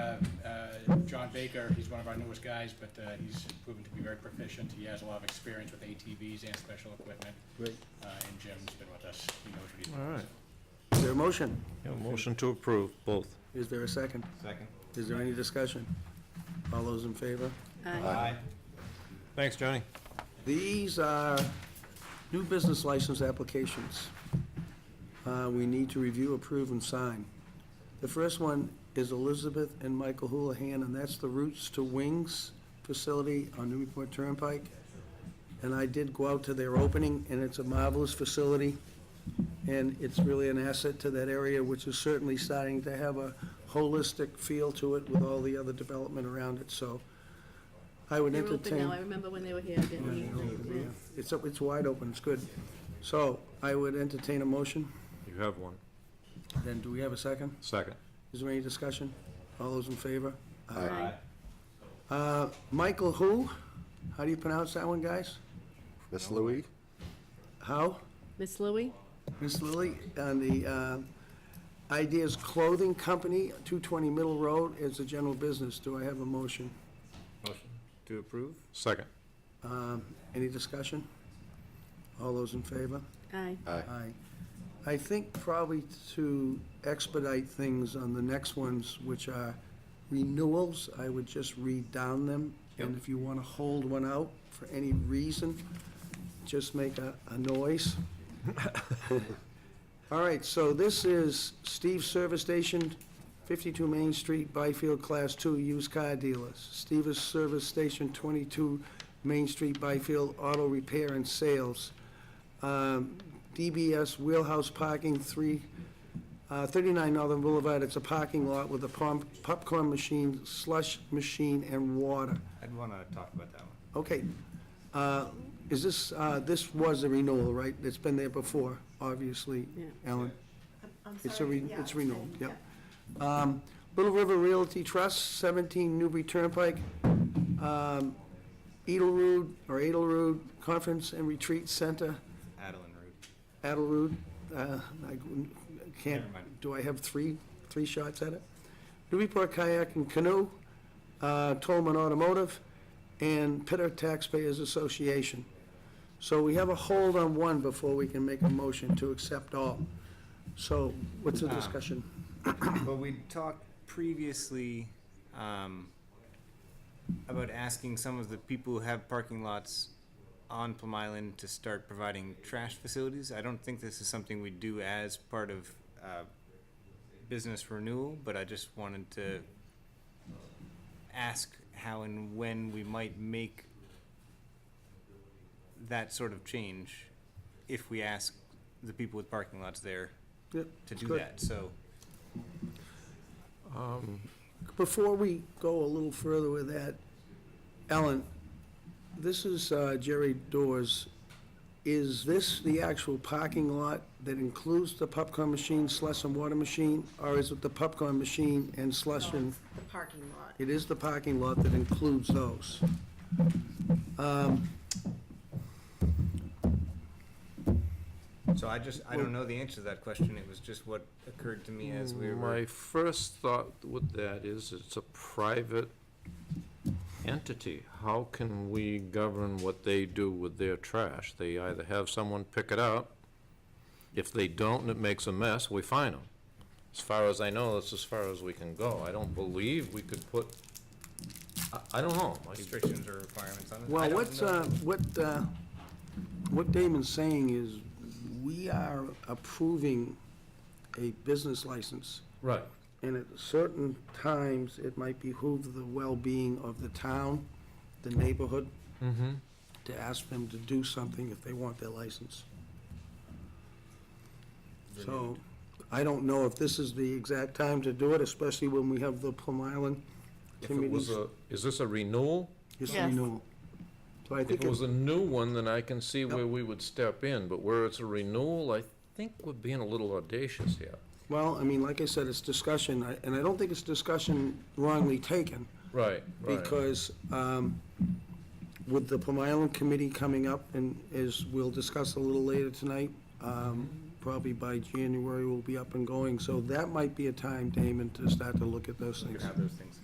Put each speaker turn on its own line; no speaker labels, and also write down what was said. Uh, John Baker, he's one of our newest guys, but uh, he's proven to be very proficient. He has a lot of experience with ATVs and special equipment.
Great.
Uh, And Jim's been with us, he knows what he's
All
doing.
right.
Is there a motion?
Yeah, motion to approve, both.
Is there a second?
Second.
Is there any discussion? All those in favor?
Aye.
Thanks, Johnny.
These are new business license applications. Uh, We need to review, approve, and sign. The first one is Elizabeth and Michael Houlihan, and that's the Roots to Wings facility on Newburyport Turnpike. And I did go out to their opening, and it's a marvelous facility, and it's really an asset to that area, which is certainly starting to have a holistic feel to it with all the other development around it, so I would
They're
entertain...
open now, I remember when they were here, didn't we? Yeah.
It's, up- it's wide open, it's good. So, I would entertain a motion,
You have one.
then do we have a second?
Second.
Is there any discussion? All those in favor?
Aye.
Uh, Michael who? How do you pronounce that one, guys?
Miss Louie?
How?
Miss Louie?
Miss Lilly, on the uh, Ideas Clothing Company, 220 Middle Road, is a general business. Do I have a motion?
Motion to approve?
Second.
Um, Any discussion? All those in favor?
Aye.
Aye.
Aye. I think probably to expedite things on the next ones, which are renewals, I would just read down them. And if you want to hold one out for any reason, just make a, a noise. All right, so this is Steve's Service Station, 52 Main Street, Byfield Class 2 Used Car Dealers. Steve's Service Station, 22 Main Street, Byfield Auto Repair and Sales. Um, DBS Wheelhouse Parking, three, uh, 39 Northern Boulevard. It's a parking lot with a pom- popcorn machine, slush machine, and water.
I'd want to talk about that one.
Okay. Uh, Is this, uh, this was a renewal, right? It's been there before, obviously,
Yeah.
Alan.
I'm
It's a,
sorry,
re-
yeah,
it's renewal,
okay,
yep. Um, Little River Realty Trust, 17 Newbury Turnpike, um, Edelrude, or Edelrude Conference and Retreat Center,
Adeline Root.
Adelrude, uh, I can't,
Never mind.
do I have three, three shots at it? Newburyport Kayak and Canoe, uh, Tolman Automotive, and Pitter Taxpayers Association. So we have a hold on one before we can make a motion to accept all. So what's the
Ah.
discussion?
But we talked previously um, about asking some of the people who have parking lots on Plum Island to start providing trash facilities. I don't think this is something we do as part of uh, business renewal, but I just wanted to ask how and when we might make that sort of change if we ask the people with parking lots there
Yep,
to
it's
do
good.
that. So.
Before we go a little further with that, Ellen, this is uh, Jerry Doors. Is this the actual parking lot that includes the popcorn machine, slush and water machine? Or is it the popcorn machine and slush and,
The parking lot.
it is the parking lot that includes those? Um,
So I just, I don't know the answer to that question, it was just what occurred to me as we
My
were,
first thought with that is it's a private entity. How can we govern what they do with their trash? They either have someone pick it up. If they don't and it makes a mess, we fine them. As far as I know, that's as far as we can go. I don't believe we could put, I, I don't know. I-
restrictions or requirements on it. I
Well,
don't
what's,
know.
uh, what, uh, what Damon's saying is, we are approving a business license.
Right.
and at certain times, it might behoove the well-being of the town, the neighborhood,
Mm-hmm.
to ask them to do something if they want their license. So, I don't know if this is the exact time to do it, especially when we have the Plum Island
If it was
committees.
a, is this a renewal?
It's
Yes.
renewal. So I
If
think,
it
it-
was a new one, then I can see where we would step in, but where it's a renewal, I think we're being a little audacious here.
well, I mean, like I said, it's discussion, I- and I don't think it's discussion wrongly taken.
Right, right.
because um, with the Plum Island Committee coming up, and as we'll discuss a little later tonight, um, probably by January we'll be up and going, so that might be a time, Damon, to start to look at those
Could
things.
have those things.